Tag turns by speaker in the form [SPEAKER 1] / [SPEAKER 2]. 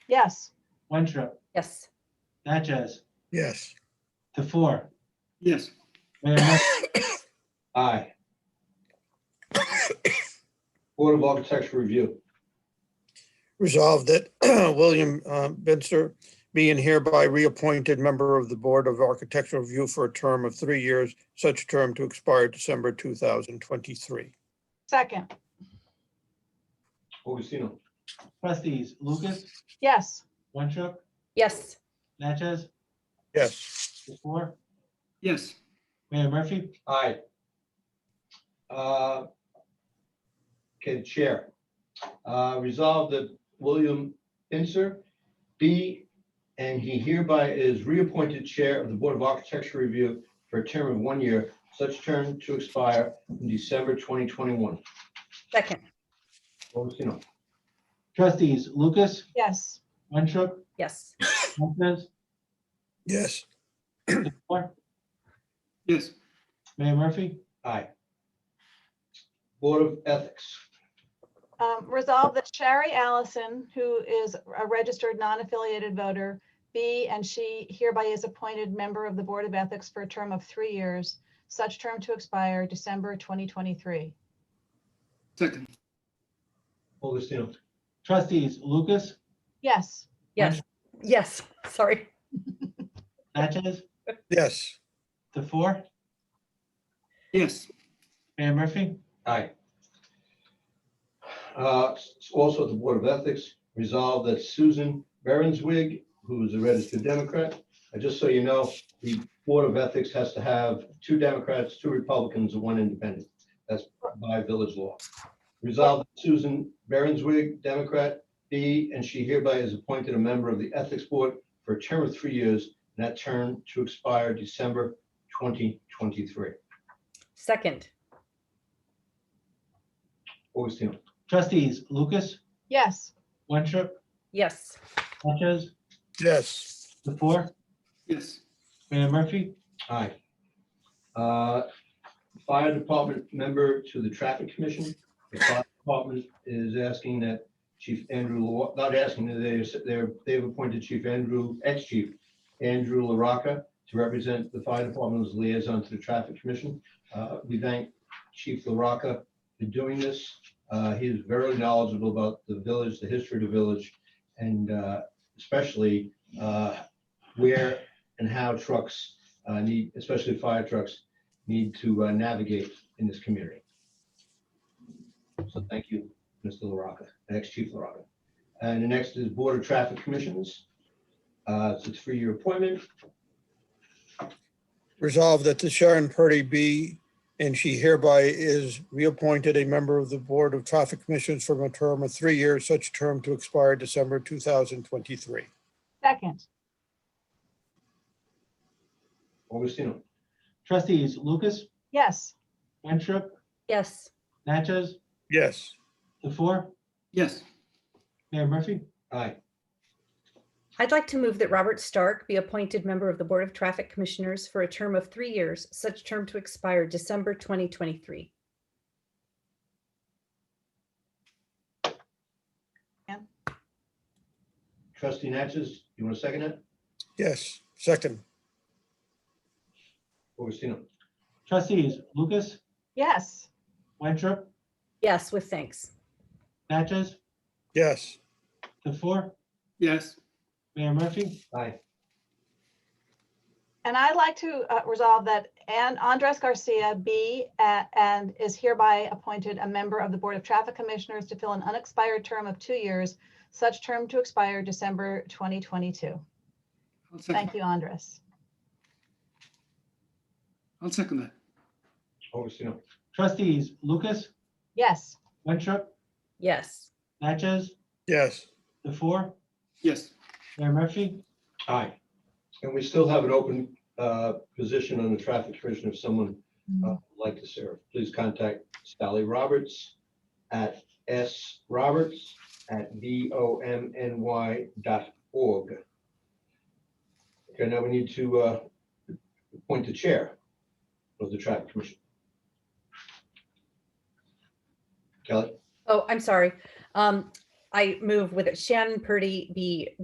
[SPEAKER 1] Yes.
[SPEAKER 2] Winstrup,
[SPEAKER 3] Yes.
[SPEAKER 2] Natchez,
[SPEAKER 4] yes,
[SPEAKER 2] the four.
[SPEAKER 5] yes,
[SPEAKER 2] Mayor Murphy,
[SPEAKER 6] Aye. Board of Architecture review.
[SPEAKER 4] resolved that William uh, Binzer be and hereby reappointed member of the Board of Architectural Review for a term of three years, such term to expire December 2023.
[SPEAKER 1] Second.
[SPEAKER 6] Augustino.
[SPEAKER 2] trustees Lucas,
[SPEAKER 1] Yes.
[SPEAKER 2] Winstrup,
[SPEAKER 3] Yes.
[SPEAKER 2] Natchez,
[SPEAKER 4] Yes,
[SPEAKER 2] the four.
[SPEAKER 5] yes,
[SPEAKER 2] Mayor Murphy,
[SPEAKER 6] Aye. Uh, Can chair. Uh, Resolve that William Inser be and he hereby is reappointed Chair of the Board of Architecture Review for a term of one year, such term to expire in December 2021.
[SPEAKER 3] Second.
[SPEAKER 6] Augustino.
[SPEAKER 2] trustees Lucas,
[SPEAKER 1] Yes.
[SPEAKER 2] Winstrup,
[SPEAKER 3] Yes.
[SPEAKER 2] Natchez,
[SPEAKER 4] yes,
[SPEAKER 2] the four.
[SPEAKER 5] yes,
[SPEAKER 2] Mayor Murphy,
[SPEAKER 6] Aye. Board of Ethics.
[SPEAKER 1] Um, Resolve that Sherry Allison, who is a registered non-affiliated voter, be and she hereby is appointed member of the Board of Ethics for a term of three years, such term to expire December 2023.
[SPEAKER 5] second,
[SPEAKER 6] Augustino.
[SPEAKER 2] trustees Lucas,
[SPEAKER 1] Yes.
[SPEAKER 3] Yes. Yes. Sorry.
[SPEAKER 2] Natchez,
[SPEAKER 4] yes,
[SPEAKER 2] the four.
[SPEAKER 5] yes,
[SPEAKER 2] Mayor Murphy,
[SPEAKER 6] Aye. Uh, s- Also, at the Board of Ethics resolved that Susan Berenswig, who is a registered Democrat, uh, just so you know, the Board of Ethics has to have two Democrats, two Republicans, and one independent. That's by village law. Resolved that Susan Berenswig, Democrat, be, and she hereby is appointed a member of the Ethics Board for a term of three years, and that term to expire December 2023.
[SPEAKER 3] Second.
[SPEAKER 6] Augustino.
[SPEAKER 2] trustees Lucas,
[SPEAKER 1] Yes.
[SPEAKER 2] Winstrup,
[SPEAKER 3] Yes.
[SPEAKER 2] Natchez,
[SPEAKER 4] yes,
[SPEAKER 2] the four.
[SPEAKER 5] yes,
[SPEAKER 2] Mayor Murphy,
[SPEAKER 6] Aye. Uh, Fire Department member to the Traffic Commission. The Fire Department is asking that Chief Andrew, Law- not asking, they, they're, they've appointed Chief Andrew, ex-chief Andrew LaRocca to represent the Fire Department as liaison to the Traffic Commission. Uh, We thank Chief LaRocca for doing this. Uh, He is very knowledgeable about the village, the history of the village, and uh, especially uh, where and how trucks uh, need, especially fire trucks, need to uh, navigate in this community. So thank you, Mr. LaRocca, ex-chief LaRocca. And the next is Board of Traffic Commissions. Uh, It's a three-year appointment.
[SPEAKER 4] resolved that the Sharon Purdy be and she hereby is reappointed a member of the Board of Traffic Commissions for a term of three years, such term to expire December 2023.
[SPEAKER 1] Second.
[SPEAKER 6] Augustino.
[SPEAKER 2] trustees Lucas,
[SPEAKER 1] Yes.
[SPEAKER 2] Winstrup,
[SPEAKER 3] Yes.
[SPEAKER 2] Natchez,
[SPEAKER 4] Yes,
[SPEAKER 2] the four.
[SPEAKER 5] yes,
[SPEAKER 2] Mayor Murphy,
[SPEAKER 6] Aye.
[SPEAKER 3] I'd like to move that Robert Stark be appointed member of the Board of Traffic Commissioners for a term of three years, such term to expire December 2023.
[SPEAKER 6] Trustee Natchez, you want to second that?
[SPEAKER 4] yes, second,
[SPEAKER 6] Augustino.
[SPEAKER 2] trustees Lucas,
[SPEAKER 1] Yes.
[SPEAKER 2] Winstrup,
[SPEAKER 3] Yes, with thanks.
[SPEAKER 2] Natchez,
[SPEAKER 4] yes,
[SPEAKER 2] the four.
[SPEAKER 5] yes,
[SPEAKER 2] Mayor Murphy,
[SPEAKER 6] Aye.
[SPEAKER 1] And I'd like to uh, resolve that An- Andres Garcia be a- and is hereby appointed a member of the Board of Traffic Commissioners to fill an unexpired term of two years, such term to expire December 2022.
[SPEAKER 5] I'll second,
[SPEAKER 1] Thank you, Andres.
[SPEAKER 5] I'll second that,
[SPEAKER 6] Augustino.
[SPEAKER 2] trustees Lucas,
[SPEAKER 1] Yes.
[SPEAKER 2] Winstrup,
[SPEAKER 3] Yes.
[SPEAKER 2] Natchez,
[SPEAKER 4] yes,
[SPEAKER 2] the four.
[SPEAKER 5] yes,
[SPEAKER 2] Mayor Murphy,
[SPEAKER 6] Aye. And we still have an open uh, position on the Traffic Commission if someone uh, would like to serve. Please contact Sally Roberts at sroberts@vomny dot org. Okay, now we need to uh, appoint the chair of the Traffic Commission. Kelly?
[SPEAKER 3] Oh, I'm sorry. Um, I move with it. Shannon Purdy be